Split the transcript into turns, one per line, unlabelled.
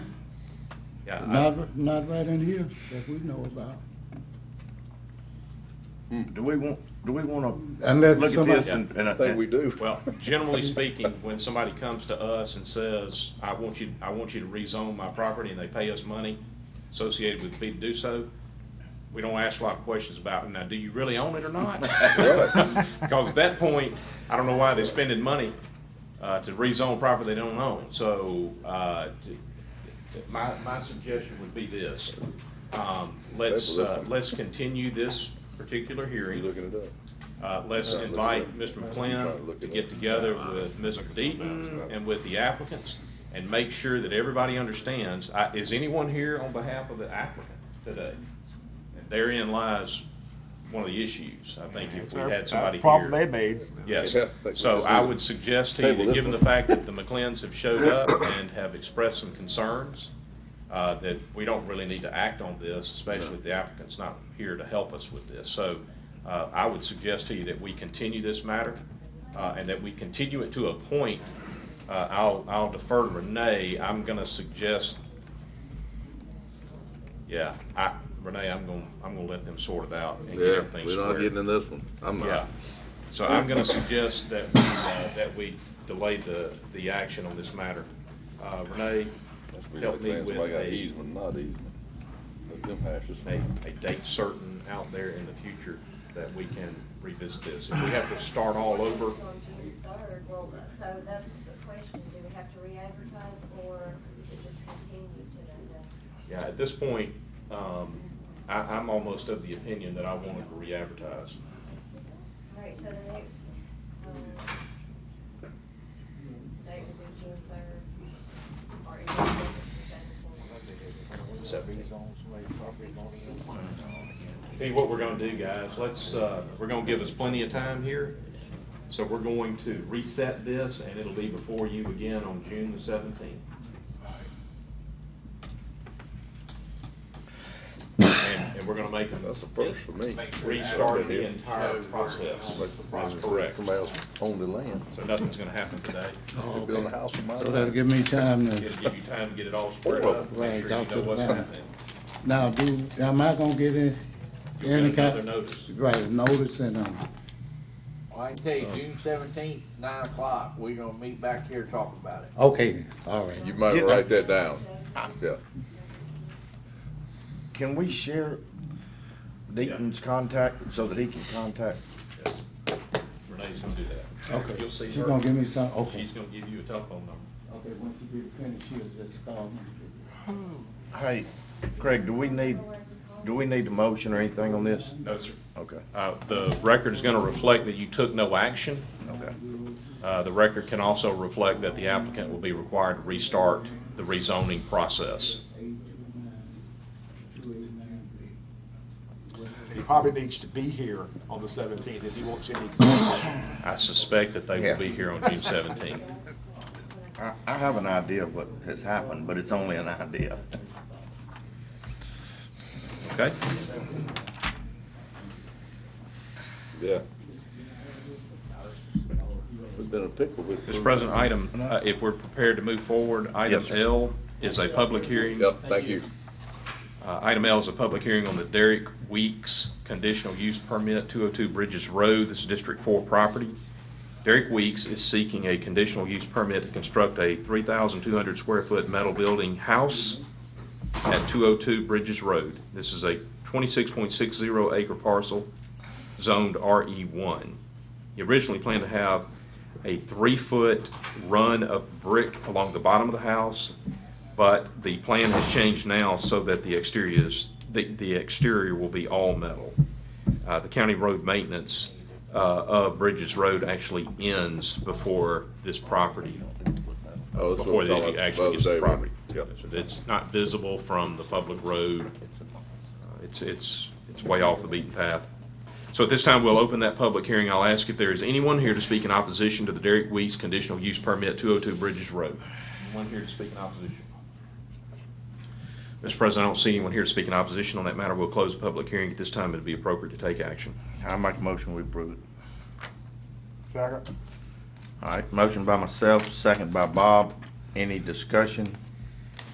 Yeah, I-
Not, not right in here that we know about.
Do we want, do we wanna
Unless
look at
somebody-
this and, and.
I think we do.
Well, generally speaking, when somebody comes to us and says, I want you, I want you to rezone my property, and they pay us money associated with the fee to do so, we don't ask a lot of questions about, now, do you really own it or not? Because at that point, I don't know why they're spending money uh, to rezone property they don't own. So uh, t- t- my, my suggestion would be this. Um, Let's,
Table this
uh,
one.
let's continue this particular
You're
hearing.
looking it up.
Uh, let's
Yeah, look it
invite
up.
Mr.
Try to
McClendon
look
to
it
get
up.
together with Mr. Deaton and with the applicants and make sure that everybody understands. I- Is anyone here on behalf of the applicant today? And Therein lies one of the issues, I think, if we had somebody here.
uh, Problem they made.
Yes.
Yeah, I think we
So
just
I
need to
would suggest to you,
table
that
this
given the
one.
fact that the McLennans have showed up and have expressed some concerns, uh, that we don't really need to act on this, especially if the applicant's not here to help us with this. So uh, I would suggest to you that we continue this matter uh, and that we continue it to a point. Uh, I'll I'll defer to Renee. I'm going to suggest, yeah, I- Renee, I'm going, I'm going to let them sort it out and get
Yeah,
everything
we're not
squared.
getting in this one. I'm
Yeah,
not.
Uh, so I'm gonna suggest that, uh, that we delay the, the action on this matter. Uh, Renee,
That's be
help
like
me
saying
with
somebody got
a,
easement, not easement. Let them hash this
a,
one.
a date certain out there in the future that we can revisit this. If we have to start all over,
On June third, well, so that's the question, do we have to re-advertise or is it just continued to the,
yeah, at this point, um, I, I'm almost of the opinion that I wanted to re-advertise.
all right, so the next, um, date would be June third, or is it just the
So- Tell you what we're gonna do, guys, let's, uh, we're gonna give us plenty of time here. So we're going to reset this and it'll be before you again on June the seventeenth. And, and we're gonna make them
That's the first for me.
restart the entire process. That's correct.
Somebody else owned the land.
So nothing's gonna happen today.
Oh,
Build a
okay.
house on my
So that'll
land.
give me time
It'll
to,
give you time to get it all squared up, make sure you know what's happening.
now, do, am I gonna get any,
You'll
any
get another
kind?
notice.
Right, notice and, um,
Well, I can tell you, June seventeenth, nine o'clock, we're gonna meet back here and talk about it.
okay, then, all right.
You might
Yeah.
write that down. Yeah.
Can we share Deaton's contact so that he can contact?
Renee's gonna do that.
Okay.
You'll see her.
She's gonna give me some, okay.
She's gonna give you a telephone number.
Okay, once you get finished, she'll just call me.
Hey, Craig, do we need, do we need a motion or anything on this?
No, sir.
Okay,
Uh, the record is gonna reflect that you took no action.
okay.
Uh, the record can also reflect that the applicant will be required to restart the rezoning process.
He probably needs to be here on the seventeenth if he wants any. consideration.
I suspect that they will
Yeah.
be here on June seventeenth.
I, I have an idea of what has happened, but it's only an idea.
Okay?
Yeah. We've been in a pickle with.
Mr. President, item, uh, if we're prepared to move forward, item
Yes, sir.
L is a public hearing.
Yep, thank you.
Uh, Item L is a public hearing on the Derek Weeks conditional use permit, 202 Bridges Road. This is District 4 property. Derek Weeks is seeking a conditional use permit to construct a 3,200 square foot metal building house at 202 Bridges Road. This is a 26.60 acre parcel zoned RE1. He originally planned to have a three-foot run of brick along the bottom of the house, but the plan has changed now so that the exterior is, the, the exterior will be all metal. Uh, the county road maintenance, uh, of Bridges Road actually ends before this property
Oh, that's what
before
I'm
they
talking about
actually gets
the
the
other day.
property.
Yep.
It's not visible from the public road. Uh, It's, it's, it's way off the beaten path. So at this time, we'll open that public hearing. I'll ask if there is anyone here to speak in opposition to the Derek Weeks conditional use permit, 202 Bridges Road. Anyone here to speak in opposition? Mr. President, I don't see anyone here to speak in opposition on that matter. We'll close the public hearing. At this time, it'd be appropriate to take action.
I make a motion, we approve it.
Second.
All right, motion by myself, second by Bob. Any discussion?